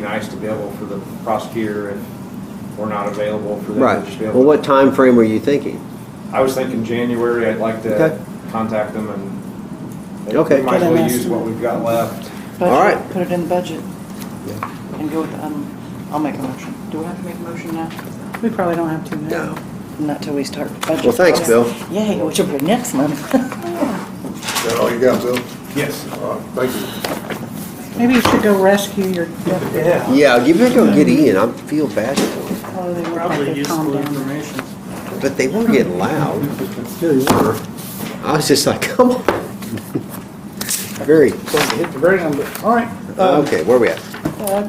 nice to be able for the prosecutor if we're not available for them. Right. to just be able Well, what to- time frame were you thinking? I was thinking January, I'd like Okay. to contact them and Okay. we might as Get an well use estimate. what we've got left. Budget, All right. Put it in the budget and go, with, um, I'll make a motion. Do we have to make a motion now? We probably don't have to No. now. Not till we start the budget. Well, thanks, Bill. Yay, which will be next month. Is that all you got, Bill? Yes. All right, thank you. Maybe you should go rescue your deputy. Yeah. Yeah, you better go get Ian, I feel bad for him. Oh, they were Probably like they useful calmed down. information. But they were getting loud. They were. I was just like, come on. Very, So we hit the ground, but, all right. um, okay, where we at? uh,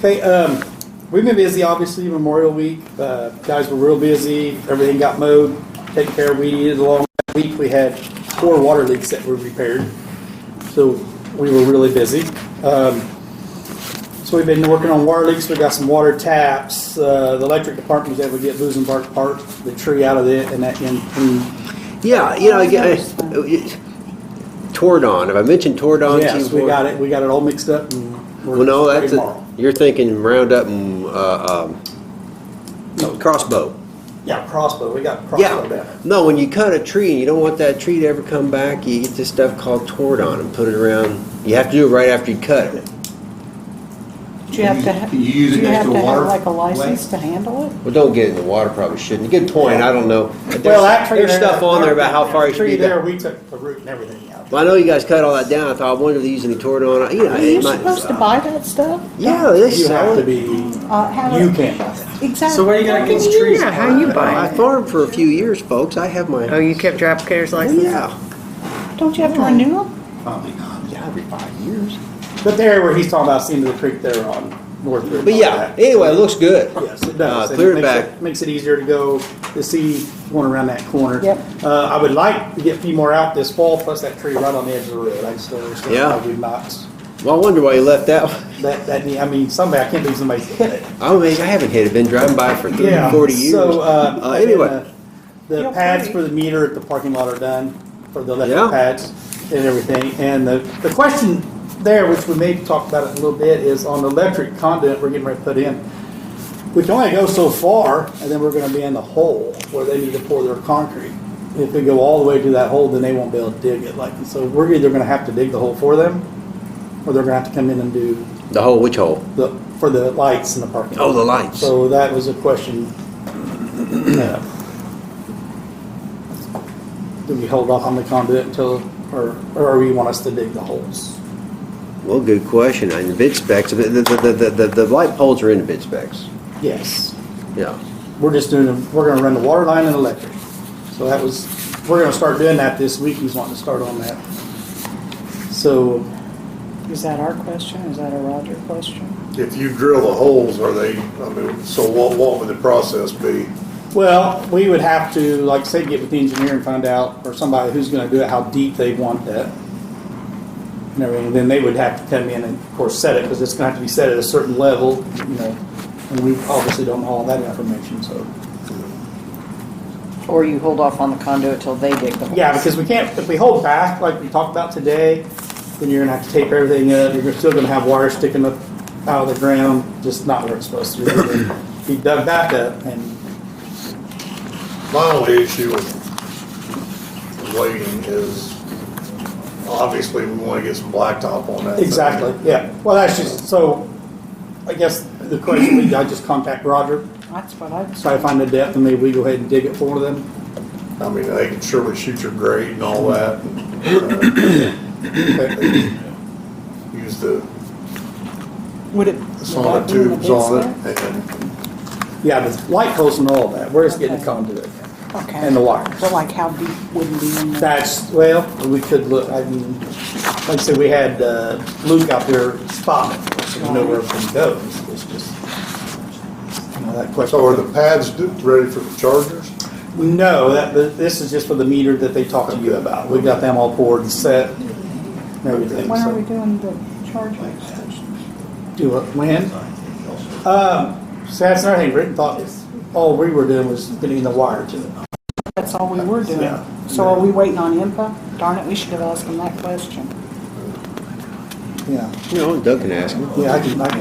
Hey, um, we've been busy, obviously, Memorial Week. Uh, guys were real busy. Everything got mowed, taken care of, weeded along. That Week, we had four water leaks that were repaired. So we were really busy. Um, so we've been working on water leaks. We got some water taps. Uh, the electric department was able to get Boozenbark Park, the tree out of it and that, and, and Yeah, you know, I, I- Always Tordon, have I mentioned Tordon? to you yes, we before? got it. We got it all mixed up and we're Oh, Well, no, ready that's, tomorrow. a- you're thinking Roundup and, uh, um, no, crossbow. Yeah, crossbow. We got crossbow Yeah, down. no, when you cut a tree and you don't want that tree to ever come back, you get this stuff called Tordon and put it around, you have to do it right after you cut it. Do you have to, ha- do Can you use it you next have to to a water have like a license lake? to handle it? Well, don't get it in the water, probably shouldn't. Good point, I don't know. Well, There's- that tree There's there- stuff on there about how far you should Tree be there, back. we took the root and everything out. Well, I know you guys cut all that down, I thought, I wonder if they use any Tordon, you know. Are it you might- uh, supposed to buy that stuff? Yeah, they You sell have to it. be, Uh, how- you can't buy that. Exactly. So what are you gonna How get can these you- trees yeah, for? how you I buy? farmed for a few years, folks, I have Oh, my, Oh, you kept your applicator's license? yeah. Don't you have to renew them? Oh Probably not. Yeah, every five years. But there where he's talking about, seeing the creek there on North River. But yeah, anyway, it looks good. Yes, it Uh, does. and Clear it makes back. Makes it easier to go, to see going around that corner. Yep. Uh, I would like to get a few more out this fall, plus that tree right on the edge of the road. I just don't understand Yeah. why we've not, Well, I wonder why you left that one. that, that, need- I mean, somebody, I can't believe somebody's hit it. I don't think I haven't hit it. Been driving by for 30, 40 years. So, uh, Uh, anyway. and, uh, the Yeah, pads pretty. for the meter at the parking lot are done, for the Yeah. electric pads and everything. And the, the question there, which we may talk about it a little bit, is on the electric conduit we're getting ready to put in. We can only go so far, and then we're gonna be in the hole where they need to pour their concrete. If they go all the way to that hole, then they won't be able to dig it, like, and so we're either gonna have to dig the hole for them, or they're gonna have to come in and do the hole, which hole? the, for the lights in the parking lot. Oh, the lights. So that was a question. uh, Do we hold off on the conduit until, or, or you want us to dig the holes? Well, good question. And the bid specs, the, the, the, the, the, the light poles are in the bid specs. Yes, Yeah. we're just doing, the- we're gonna run the water line and electric. So that was, we're gonna start doing that this week, he's wanting to start on that. So, Is that our question? Is that a Roger question? If you drill the holes, are they, I mean, so what, what would the process be? well, we would have to, like I said, get with the engineer and find out, or somebody who's gonna do it, how deep they want that. and everything, then they would have to come in and, of course, set it, because it's gonna have to be set at a certain level, you know, and we obviously don't know all that information, so. Or you hold off on the conduit till they dig the hole? Yeah, because we can't, if we hold back, like we talked about today, then you're gonna have to tape everything up, you're still gonna have wires sticking up out of the ground, just not where it's supposed to be. Be dug back up, and My only issue with waiting is, obviously, we wanna get some blacktop on that. thing. Exactly, yeah. Well, that's just, so, I guess the question, would be, I just contact Roger, That's what I, try to find the depth, and maybe we go ahead and dig it for them. I mean, they can surely shoot your grade and all that. and, uh, Use the would it? sauna tubes on it and, Yeah, the light poles and all that, we're just getting the Okay. conduit Okay. and the wires. So like how deep would it be in there? That's, well, we could look, I mean, like I said, we had uh, Luke out there spotting, it, so we know where everything goes, it's just, you know, that question. so are the pads d- ready for the chargers? No, that, th- this is just for the meter that they talked to you about, we got them all poured and set, and everything, When are we so. doing the charging station? Do it, when? Um, so that's another thing, Rick thought, all we were doing was getting the wire to it. That's all we were doing. Yeah. So are we waiting on IMPA? Darn it, we should have asked them that question. yeah, You know, Doug can ask him. yeah, I can, I can